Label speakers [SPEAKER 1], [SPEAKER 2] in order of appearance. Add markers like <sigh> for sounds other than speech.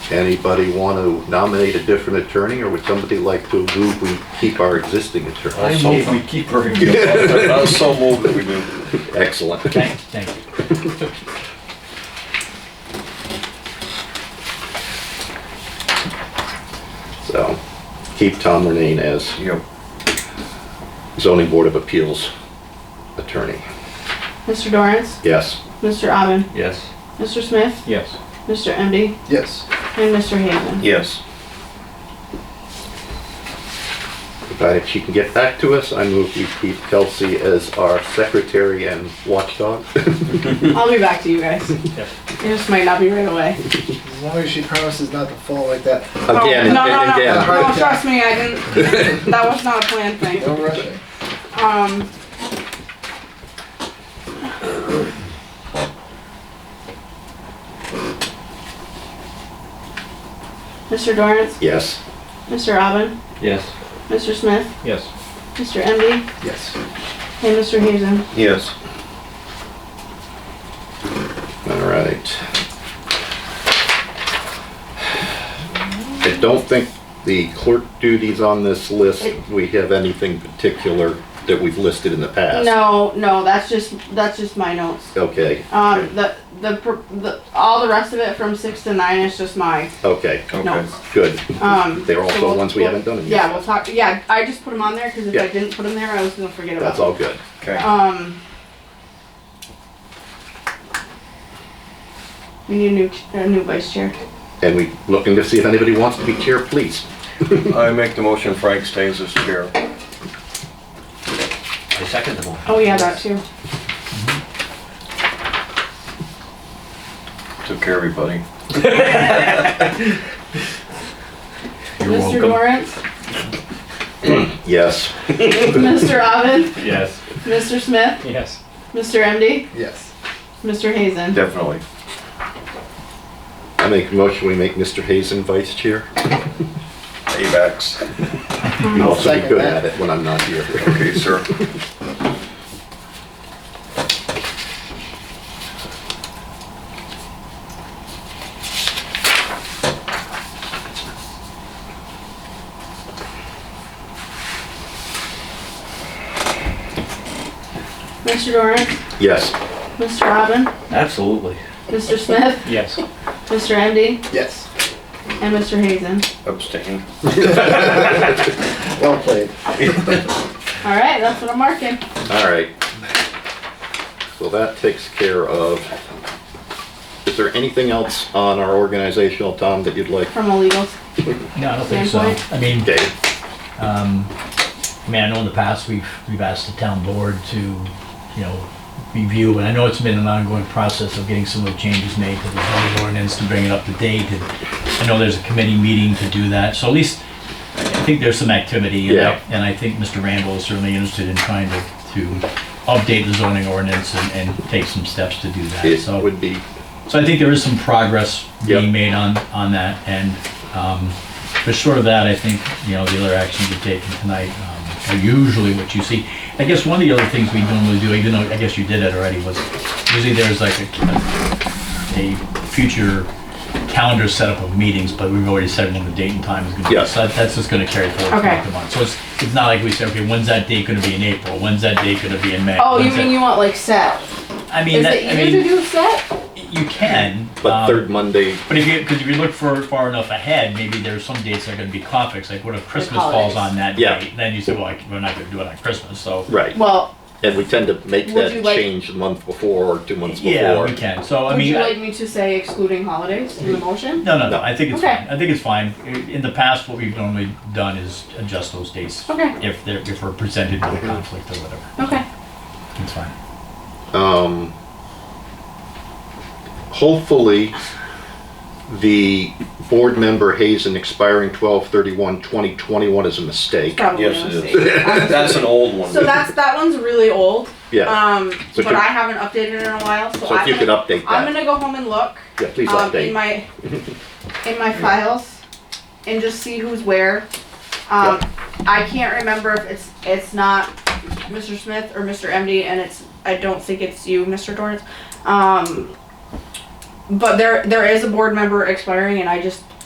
[SPEAKER 1] Anybody want to nominate a different attorney, or would somebody like to move we keep our existing
[SPEAKER 2] I
[SPEAKER 1] attorney?
[SPEAKER 2] move we keep <laughs> her. in.
[SPEAKER 3] I so moved that we do.
[SPEAKER 1] Excellent.
[SPEAKER 2] Thank, thank you.
[SPEAKER 1] So, keep Tom Renane as
[SPEAKER 3] Yep.
[SPEAKER 1] zoning board of appeals attorney.
[SPEAKER 4] Mr. Dorance,
[SPEAKER 1] Yes,
[SPEAKER 4] Mr. Aubin,
[SPEAKER 2] Yes.
[SPEAKER 4] Mr. Smith,
[SPEAKER 2] Yes.
[SPEAKER 4] Mr. Emdy,
[SPEAKER 3] Yes.
[SPEAKER 4] and Mr. Hazen.
[SPEAKER 3] Yes.
[SPEAKER 1] provided she can get back to us, I move we keep Kelsey as our secretary and watchdog. <laughs>
[SPEAKER 4] I'll be back to you guys.
[SPEAKER 2] Yep.
[SPEAKER 4] It just might not be right away.
[SPEAKER 5] As long as she promises not to fall like that.
[SPEAKER 1] Again,
[SPEAKER 4] Oh, no, no, no,
[SPEAKER 1] again.
[SPEAKER 4] no, no, trust me, I
[SPEAKER 1] <laughs>
[SPEAKER 4] didn't, that was not a planned thing.
[SPEAKER 5] No rushing.
[SPEAKER 4] Um. Mr. Dorance,
[SPEAKER 1] Yes.
[SPEAKER 4] Mr. Robin,
[SPEAKER 2] Yes.
[SPEAKER 4] Mr. Smith,
[SPEAKER 2] Yes.
[SPEAKER 4] Mr. Emdy,
[SPEAKER 5] Yes.
[SPEAKER 4] and Mr. Hazen.
[SPEAKER 3] Yes.
[SPEAKER 1] All right. I don't think the clerk duties on this list, we have anything particular that we've listed in the past.
[SPEAKER 4] No, no, that's just, that's just my notes.
[SPEAKER 1] Okay,
[SPEAKER 4] Um, the, the, pr- the, all the rest of it from six to nine is just my
[SPEAKER 1] okay,
[SPEAKER 3] Okay.
[SPEAKER 4] notes.
[SPEAKER 1] good.
[SPEAKER 4] Um.
[SPEAKER 1] They're
[SPEAKER 4] so
[SPEAKER 1] also
[SPEAKER 4] we'll-
[SPEAKER 1] ones we haven't done yet.
[SPEAKER 4] Yeah, we'll talk, yeah, I just put them on there, cause if
[SPEAKER 1] Yeah.
[SPEAKER 4] I didn't put them there, I was gonna forget about
[SPEAKER 1] That's
[SPEAKER 4] them.
[SPEAKER 1] all good.
[SPEAKER 3] Okay.
[SPEAKER 4] Um. We need a new, ch- a new vice chair.
[SPEAKER 1] And we looking to see if anybody wants to be chair, please.
[SPEAKER 3] I make the motion Frank stays as chair.
[SPEAKER 2] I second the motion.
[SPEAKER 4] Oh, yeah, that too.
[SPEAKER 3] Took care of everybody.
[SPEAKER 4] Mr.
[SPEAKER 1] <laughs>
[SPEAKER 4] Dorrance,
[SPEAKER 1] Yes.
[SPEAKER 4] Mr. Robin,
[SPEAKER 2] Yes.
[SPEAKER 4] Mr. Smith,
[SPEAKER 2] Yes.
[SPEAKER 4] Mr. MD,
[SPEAKER 5] Yes.
[SPEAKER 4] Mr. Hazen.
[SPEAKER 3] Definitely.
[SPEAKER 1] I make a motion, we make Mr. Hazen vice chair.
[SPEAKER 3] Avax.
[SPEAKER 1] You'll also be
[SPEAKER 5] second
[SPEAKER 1] good
[SPEAKER 5] that.
[SPEAKER 1] at it when I'm not here.
[SPEAKER 3] Okay, sir.
[SPEAKER 4] Mr. Dorrance,
[SPEAKER 1] Yes.
[SPEAKER 4] Mr. Robin,
[SPEAKER 2] Absolutely.
[SPEAKER 4] Mr. Smith,
[SPEAKER 2] Yes.
[SPEAKER 4] Mr. MD,
[SPEAKER 5] Yes.
[SPEAKER 4] and Mr. Hazen.
[SPEAKER 3] Abstain.
[SPEAKER 5] Well played.
[SPEAKER 4] All right, that's what I'm marking.
[SPEAKER 1] All right. So that takes care of, is there anything else on our organizational, Tom, that you'd like?
[SPEAKER 4] From illegals.
[SPEAKER 6] No, I don't think so.
[SPEAKER 4] Standpoint?
[SPEAKER 6] I mean,
[SPEAKER 1] Okay,
[SPEAKER 6] um, I mean, I know in the past, we've, we've asked the town board to, you know, review, and I know it's been an ongoing process of getting some of the changes made to the zoning ordinance to bring it up to date. and I know there's a committee meeting to do that, so at least, I think there's some activity. and I-
[SPEAKER 1] Yeah.
[SPEAKER 6] And I think Mr. Randall is certainly interested in trying to, to update the zoning ordinance and, and take some steps to do that, so.
[SPEAKER 1] it would be,
[SPEAKER 6] So I think there is some progress
[SPEAKER 1] Yep.
[SPEAKER 6] being made on, on that, and, um, but short of that, I think, you know, the other actions you've taken tonight um, are usually what you see. I guess one of the other things we normally do, even though I guess you did it already, was usually there's like a, a future calendar setup of meetings, but we've already said when the date and time is gonna be.
[SPEAKER 1] Yeah.
[SPEAKER 6] So that- that's just gonna carry forward
[SPEAKER 4] Okay.
[SPEAKER 6] throughout the month. So it's, it's not like we say, okay, when's that date gonna be in April? When's that date gonna be in May?
[SPEAKER 4] Oh, you
[SPEAKER 6] When's that-
[SPEAKER 4] mean you want like set?
[SPEAKER 6] I mean,
[SPEAKER 4] Is
[SPEAKER 6] that,
[SPEAKER 4] it
[SPEAKER 6] I
[SPEAKER 4] easier to
[SPEAKER 6] mean,
[SPEAKER 4] do set?
[SPEAKER 6] you can.
[SPEAKER 1] but
[SPEAKER 6] um,
[SPEAKER 1] third Monday,
[SPEAKER 6] but if you, because if you look for far enough ahead, maybe there's some dates that are going to be conflicts. Like, what if Christmas falls
[SPEAKER 4] holidays.
[SPEAKER 6] on that
[SPEAKER 1] Yeah.
[SPEAKER 6] date? Then you say, well, I, we're not going to do it on Christmas. So,
[SPEAKER 1] right,
[SPEAKER 4] Well,
[SPEAKER 1] and we tend to make
[SPEAKER 4] Would
[SPEAKER 1] that
[SPEAKER 4] you like-
[SPEAKER 1] change a month before or two months
[SPEAKER 6] yeah,
[SPEAKER 1] before.
[SPEAKER 6] we can. So, I
[SPEAKER 4] would
[SPEAKER 6] mean,
[SPEAKER 4] you
[SPEAKER 6] I-
[SPEAKER 4] like me to say excluding holidays in the motion?
[SPEAKER 6] no, no, no. I think it's
[SPEAKER 4] Okay.
[SPEAKER 6] fine. I think it's fine. I- In the past, what we've normally done is adjust those dates
[SPEAKER 4] Okay.
[SPEAKER 6] if they're if we're presented with a conflict or whatever.
[SPEAKER 4] Okay.
[SPEAKER 6] It's fine.
[SPEAKER 1] Um, hopefully, the board member Hazen expiring 12/31/2021 is a mistake.
[SPEAKER 4] Probably
[SPEAKER 3] Yes, it
[SPEAKER 4] a
[SPEAKER 3] is.
[SPEAKER 4] mistake.
[SPEAKER 3] That's an old one.
[SPEAKER 4] So that's, that one's really old.
[SPEAKER 1] Yeah,
[SPEAKER 4] Um,
[SPEAKER 1] So
[SPEAKER 4] but
[SPEAKER 1] could-
[SPEAKER 4] I haven't updated it in a while, so
[SPEAKER 1] so if
[SPEAKER 4] I'm
[SPEAKER 1] you could
[SPEAKER 4] gonna,
[SPEAKER 1] update
[SPEAKER 4] I'm
[SPEAKER 1] that,
[SPEAKER 4] gonna go home and look,
[SPEAKER 1] yeah, please
[SPEAKER 4] um,
[SPEAKER 1] update.
[SPEAKER 4] in my, in my files, and just see who's where. Um, I can't remember if it's, it's not Mr. Smith or Mr. MD, and it's, I don't think it's you, Mr. Dorrance. Um, but there, there is a board member expiring, and I just